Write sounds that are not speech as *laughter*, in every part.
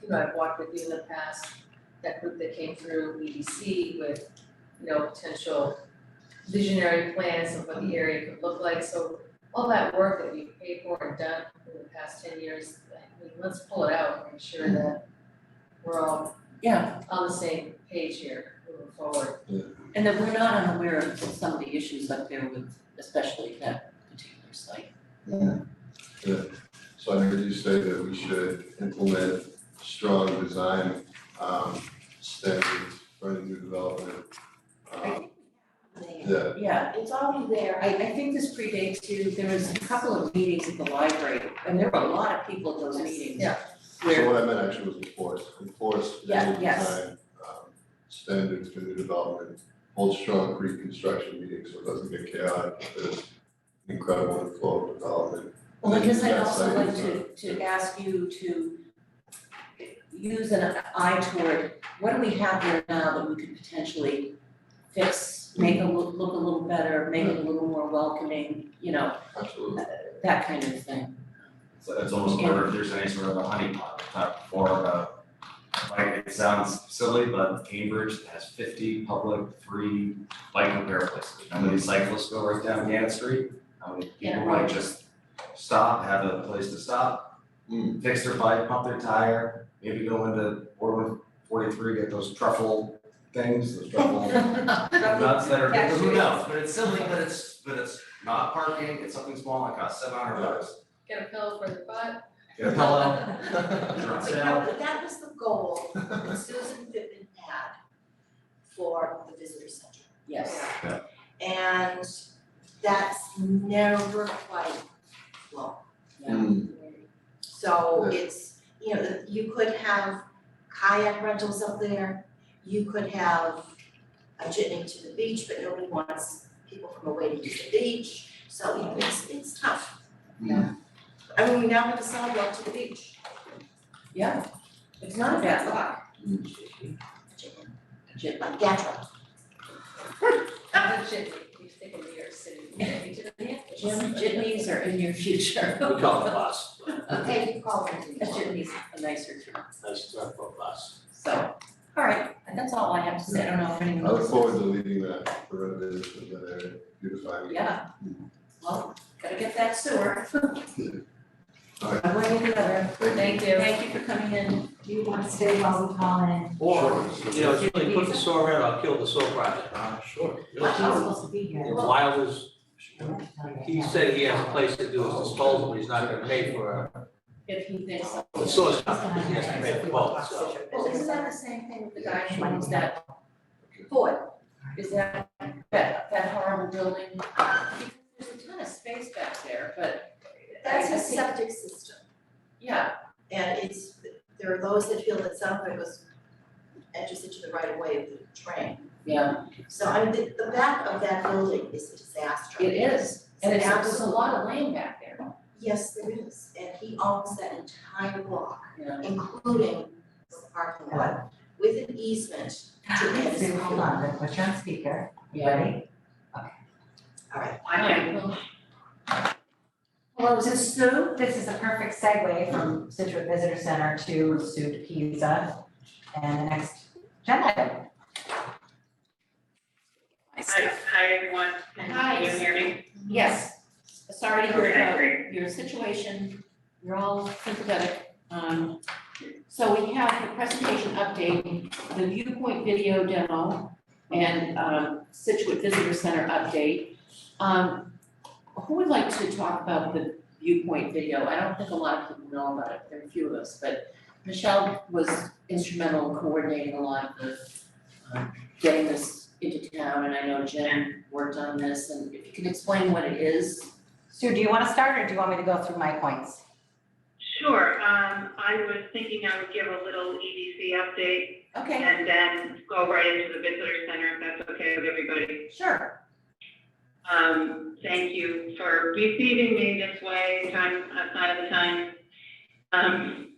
who I've walked with um, you in the past, that group that came through EDC with, you know, potential visionary plans of what the area could look like, so all that work that we've paid for and done in the past ten years, I mean, let's pull it out and make sure that we're all Yeah, on the same page here moving forward. and that we're not unaware of some of the issues up there with, especially that particular site. So I heard you say that we should implement strong design um standards for any new development. Um yeah, Yeah, it's already there. I, I think this predates you. There was a couple of meetings at the library, and there were a lot of people at those meetings. Yeah. so Where, what I meant actually was enforce, enforce the Yeah, new yes. design um standards for new development. Hold strong pre-construction meetings so it doesn't get chaotic, there's incredible flow of development. well, I guess I'd Yes, also I like to, agree. to ask you to use an eye toward, what do we have there now that we could potentially fix, make a look, look a little better, make it a little more welcoming, you know, Absolutely, that kind of *laughs* thing. So it's almost where if there's any sort of a honeypot, not for uh like, it sounds silly, but Cambridge has fifty public free bike repair places. How many cyclists go right down Gannett Street? How many people might just stop, have a place to stop? Hmm. Fix their bike, pump their tire, maybe go into Boardman forty-three, get those truffle things, those truffle *laughs* nuts that are, Tax who knows? But it's silly, but it's, but it's not parking, it's something small, it costs seven hundred bucks. Get a pillow for the *laughs* butt. Get a pillow, drop But down. that, but that was the goal that Susan Pittman had for the visitor center. Yes, And that's never quite, well, yeah. so Yeah. it's, you know, you could have kayak rentals up there. You could have a jitney to the beach, but nobody wants people from away to use the beach. So, you know, it's, it's tough. Mm. I mean, we now have a sidewalk to the beach. Yeah, it's not a bad lot. Jim, Like Gatra. The chitney, you think of New York City, you do the office. Jim, jitneys are in your future. We call it bus, Okay, you call it. A jitney's a nicer term, that's the term for bus. so, all right, that's all I have to say, I don't know if anyone I else. look forward to leading that, the renovation of that area, beautifying it. Yeah, well, gotta get that sewer. Alright. One way or the other. Thank you. Thank you for coming in. Do you want to stay while we call in? Or, Sure. you know, Julie, put the saw in, I'll kill the saw project. Uh, sure. supposed to be here. Wilders, he said he has a place to do his disposal, but he's not gonna pay for, uh, If he thinks. the saw's company, Uh, he has to pay for both, so. Well, isn't that the same thing with the guy who owns that, Four. is that, that, that horrible building? Because There's a ton of space back there, but. That's I his think- septic system, Yeah, and it's, there are those that feel that some of it was enters into the right of way of the train. yeah, So I mean, the, the back of that building is a disaster. it is, and it's, there's a absolute- lot of land back there. Yes, there is, and he owns that entire block, Yeah. including the parking lot, with an easement to his Hold on, let's put you on speaker. Yeah. Ready? All right, Hello, this is Sue. This is a perfect segue from Situate Visitor Center to Sue Pizza and the next agenda item. Hi, hi, everyone. Hi. Can you hear me? Yes, sorry to hear Okay, about great. your situation, we're all sympathetic. Um, so we have the presentation update, the viewpoint video demo, and, um, Situate Visitor Center update. Um, who would like to talk about the viewpoint video? I don't think a lot of people know about it, there are a few of us, but Michelle was instrumental in coordinating a lot of the, um, getting this into town, and I know Jen worked on this, and if you can explain what it is. Sue, do you want to start or do you want me to go through my points? Sure, um, I was thinking I would give a little EDC update Okay, and then go right into the visitor center if that's okay with everybody. sure. Um, thank you for receiving me this way, time outside of the time. Um,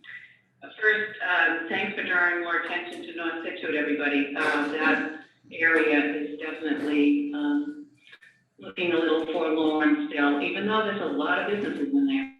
first, um, thanks for drawing more attention to North Situate, everybody. Um, that area is definitely, um, looking a little forlorn still, even though there's a lot of businesses in there.